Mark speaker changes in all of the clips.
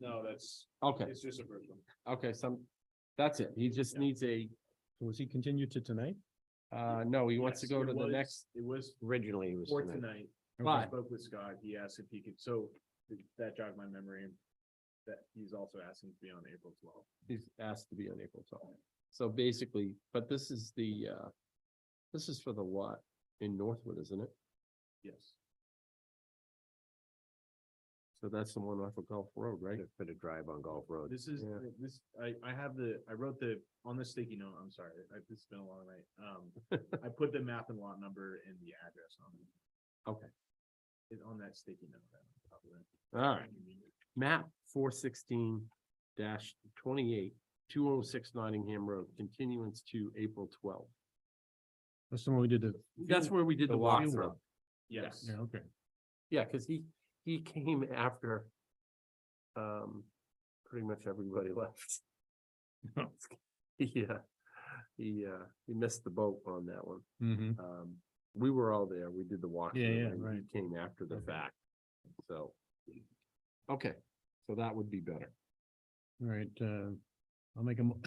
Speaker 1: No, that's,
Speaker 2: Okay,
Speaker 1: it's just a first one.
Speaker 2: okay, some, that's it. He just
Speaker 1: Yeah.
Speaker 2: needs a,
Speaker 3: Was he continued to tonight?
Speaker 2: uh, no, he wants to
Speaker 1: Yes,
Speaker 2: go
Speaker 1: it
Speaker 2: to the
Speaker 1: was-
Speaker 2: next,
Speaker 1: It was
Speaker 4: Originally, it was.
Speaker 1: for
Speaker 4: tonight.
Speaker 1: tonight. I
Speaker 2: Right.
Speaker 1: spoke with Scott, he asked if he could, so th- that jogged my memory. That he's also asking to be on April twelfth.
Speaker 2: he's asked to be on April twelfth. So basically, but this is the, uh, this is for the lot in Northwood, isn't it?
Speaker 1: Yes,
Speaker 2: So that's the one off of Gulf Road, right?
Speaker 4: Just Put a drive on Golf Road.
Speaker 1: this is, uh,
Speaker 2: Yeah.
Speaker 1: this, I, I have the, I wrote the, on the sticky note, I'm sorry, I, this has been a long night. Um, I put the map and lot number and the address on it.
Speaker 2: Okay.
Speaker 1: It, on that sticky note. that I'm probably-
Speaker 2: All right, map four sixteen dash twenty-eight, two oh six Nottingham Road, continuance to April twelfth.
Speaker 3: That's the one we did the.
Speaker 2: That's where we did the
Speaker 3: The walk-
Speaker 2: walkthrough.
Speaker 1: Yes,
Speaker 3: Yeah, okay.
Speaker 2: Yeah, because he, he came after um, pretty much everybody left. Yeah, he, uh, he missed the boat on that one.
Speaker 3: Mm-hmm.
Speaker 2: Um, we were all there. We did the walkthrough.
Speaker 3: yeah,
Speaker 2: and he
Speaker 3: right.
Speaker 2: Came after the
Speaker 3: Okay.
Speaker 2: fact, so. Okay, so that would be better.
Speaker 3: All right, uh, I'll make a. mo-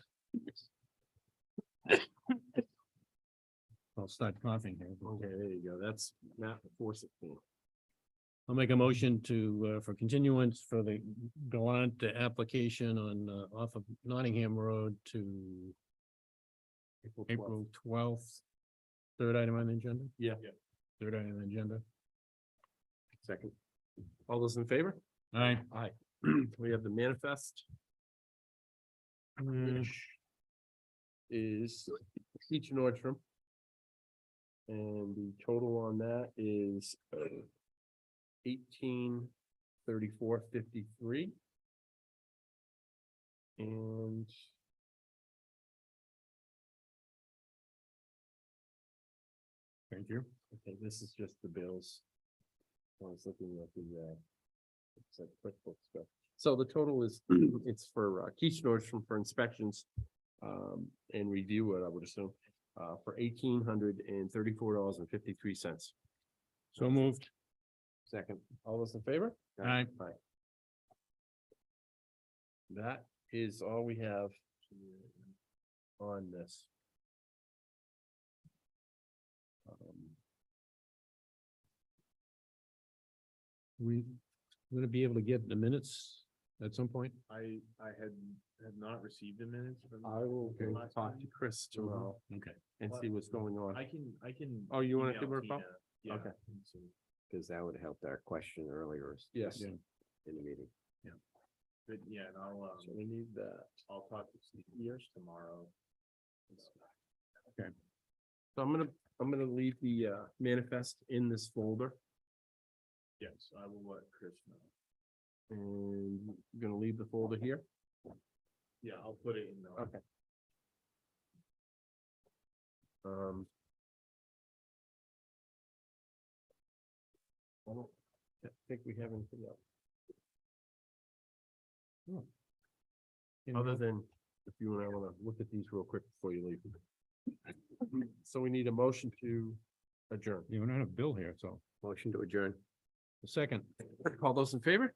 Speaker 3: I'll start coughing here. but-
Speaker 2: Okay, there you go. That's map four sixteen.
Speaker 3: I'll make a motion to, uh, for continuance for the Gallant application on, uh, off of Nottingham Road to April twelfth. Third item on the agenda?
Speaker 2: Yeah.
Speaker 1: Yeah.
Speaker 3: Third item on the agenda.
Speaker 2: Second. All those in favor?
Speaker 3: All right.
Speaker 2: Aye. We have the manifest. which is each Nordstrom. And the total on that is uh, eighteen thirty-four fifty-three. And
Speaker 3: Thank you.
Speaker 2: I think this is just the bills. I was looking at the, uh, it's like QuickBooks stuff. So the total is, it's for uh, Keach Nordstrom for inspections, um, and review it, I would assume, uh, for eighteen hundred and thirty-four dollars and fifty-three cents.
Speaker 3: So moved.
Speaker 2: Second. All those in favor?
Speaker 3: All right.
Speaker 2: That is all we have on this. Um,
Speaker 3: We, gonna be able to get the minutes at some point?
Speaker 1: I, I had, had not received the minutes from.
Speaker 2: I will
Speaker 1: from
Speaker 2: go
Speaker 1: last
Speaker 2: talk
Speaker 1: time.
Speaker 2: to Chris tomorrow
Speaker 3: Okay.
Speaker 2: and see what's going on.
Speaker 1: Mm-hmm. I can, I can.
Speaker 2: Oh, you wanna
Speaker 1: email
Speaker 2: give her a call?
Speaker 1: Tina, Yeah.
Speaker 2: Okay.
Speaker 1: and see.
Speaker 4: Because that would help our question earlier
Speaker 2: Yes,
Speaker 3: Yeah.
Speaker 4: in the meeting.
Speaker 1: But yeah, and I'll,
Speaker 2: so
Speaker 1: um,
Speaker 2: we need that.
Speaker 1: I'll talk to Steve Years tomorrow.
Speaker 2: So I'm gonna, I'm gonna leave the uh manifest in this folder
Speaker 1: Yes, I will let Chris know.
Speaker 2: and I'm gonna leave the folder here.
Speaker 1: Yeah, I'll put it in the.
Speaker 2: Okay. Um. I don't think we have anything else. Other than, if you and I wanna look at these real quick before you leave. So we need a motion to adjourn.
Speaker 3: You don't have Bill here, so.
Speaker 4: Motion to adjourn.
Speaker 3: Second.
Speaker 2: All those in favor?